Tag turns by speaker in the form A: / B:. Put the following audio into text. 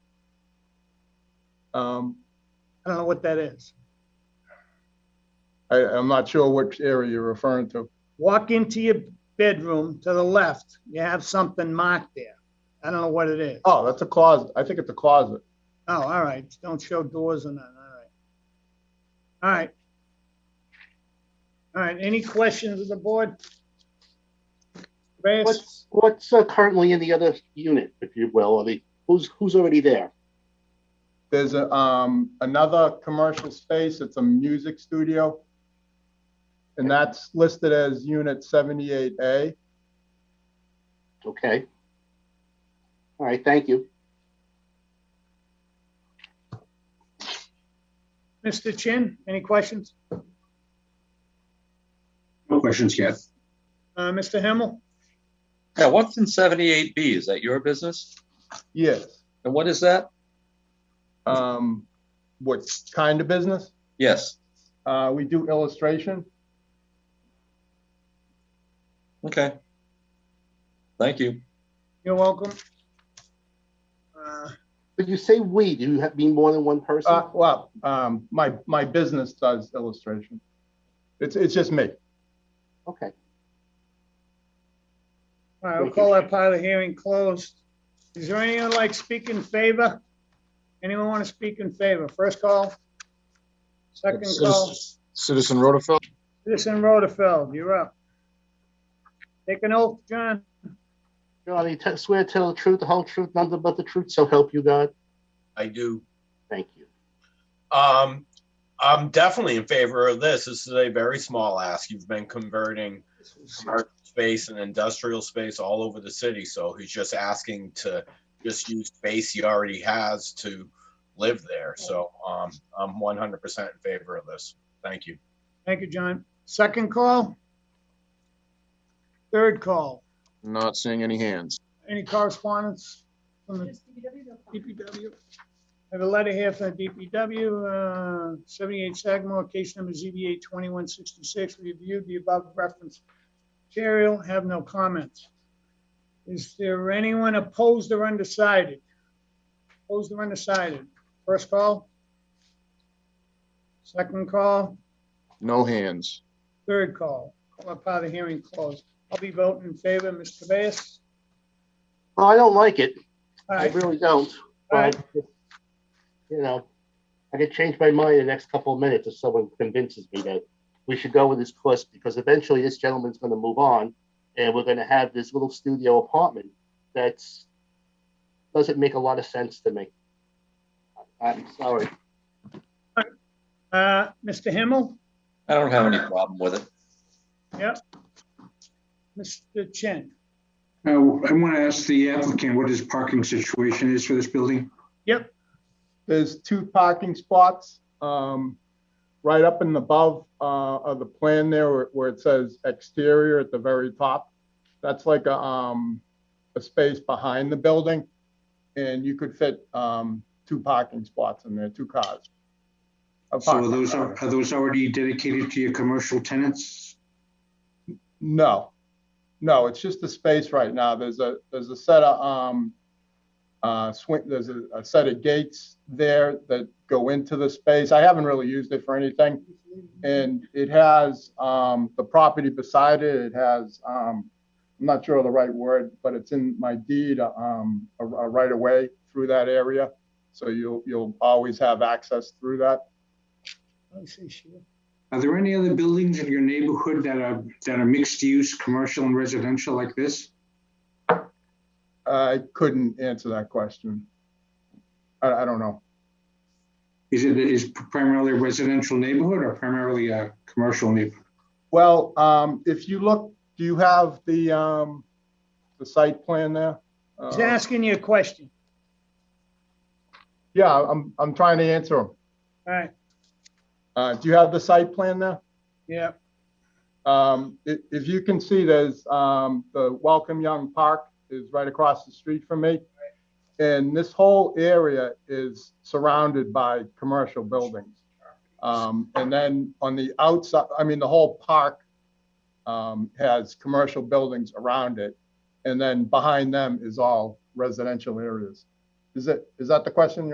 A: Um, I don't know what that is.
B: I, I'm not sure which area you're referring to.
A: Walk into your bedroom to the left, you have something marked there. I don't know what it is.
B: Oh, that's a closet. I think it's a closet.
A: Oh, all right, don't show doors or nothing, all right. All right. All right, any questions of the board? Reyes?
C: What's, what's uh, currently in the other unit, if you will, or the, who's, who's already there?
B: There's a, um, another commercial space. It's a music studio. And that's listed as unit seventy-eight A.
C: Okay. All right, thank you.
A: Mr. Chin, any questions?
D: No questions yet.
A: Uh, Mr. Himmel?
E: Yeah, what's in seventy-eight B? Is that your business?
B: Yes.
E: And what is that?
B: Um, what kind of business?
E: Yes,
B: Uh, we do illustration.
E: okay. Thank you.
A: You're welcome. Uh,
C: But you say we, do you have, mean more than one person?
B: Uh, well, um, my, my business does illustration. It's, it's just me.
C: Okay.
A: All right, we'll call that part of the hearing closed. Is there anyone like to speak in favor? Anyone want to speak in favor? First call? Second call?
F: Citizen Rutherford,
A: Citizen Rutherford, you're up. Take an oath, John.
C: Johnny, t- swear to tell the truth, the whole truth, nothing but the truth, so help you God.
G: I do.
C: Thank you.
G: Um, I'm definitely in favor of this. This is a very small ask. You've been converting commercial space and industrial space all over the city, so he's just asking to just use space he already has to live there. So, um, I'm 100% in favor of this. Thank you.
A: Thank you, John. Second call? Third call?
F: not seeing any hands.
A: Any correspondence from the DPW? I have a letter here from the DPW, uh, 78 Sagamore, case number ZBA 2166. We reviewed the above reference material, have no comments. Is there anyone opposed or undecided? Opposed or undecided? First call? Second call?
F: No hands.
A: Third call? Call up out of the hearing closed. I'll be voting in favor, Mr. Cabeas.
C: Well, I don't like it.
A: All
C: I
A: right,
C: really don't. But, you know, I could change my mind in the next couple of minutes if someone convinces me that we should go with this course because eventually this gentleman's going to move on and we're going to have this little studio apartment that's doesn't make a lot of sense to me. I'm sorry.
A: uh, Mr. Himmel?
E: I don't have any problem with it.
A: Mr. Chen?
D: Uh, I want to ask the applicant what his parking situation is for this building.
B: There's two parking spots, um, right up and above, uh, of the plan there where, where it says exterior at the very top. That's like a, um, a space behind the building and you could fit, um, two parking spots in there, two cars. A
D: So are
B: parking
D: those,
B: car.
D: are those already dedicated to your commercial tenants?
B: No, no, it's just a space right now. There's a, there's a set of, um, uh, swing, there's a, a set of gates there that go into the space. I haven't really used it for anything. And it has, um, the property beside it, it has, um, I'm not sure of the right word, but it's in my deed, um, a, a right of way through that area. So you'll, you'll always have access through that.
A: Let me see, Sheila.
D: Are there any other buildings in your neighborhood that are, that are mixed use, commercial and residential like this?
B: I couldn't answer that question. I, I don't know.
D: Is it, is primarily a residential neighborhood or primarily a commercial neighborhood?
B: Well, um, if you look, do you have the, um, the site plan there?
A: He's
B: Uh,
A: asking you a question.
B: Yeah, I'm, I'm trying to answer them.
A: All right,
B: Uh, do you have the site plan there?
A: yeah,
B: Um, if, if you can see, there's, um, the Welcome Young Park is right across the street from me. And this whole area is surrounded by commercial buildings. Um, and then on the outside, I mean, the whole park, um, has commercial buildings around it. And then behind them is all residential areas. Is it, is that the question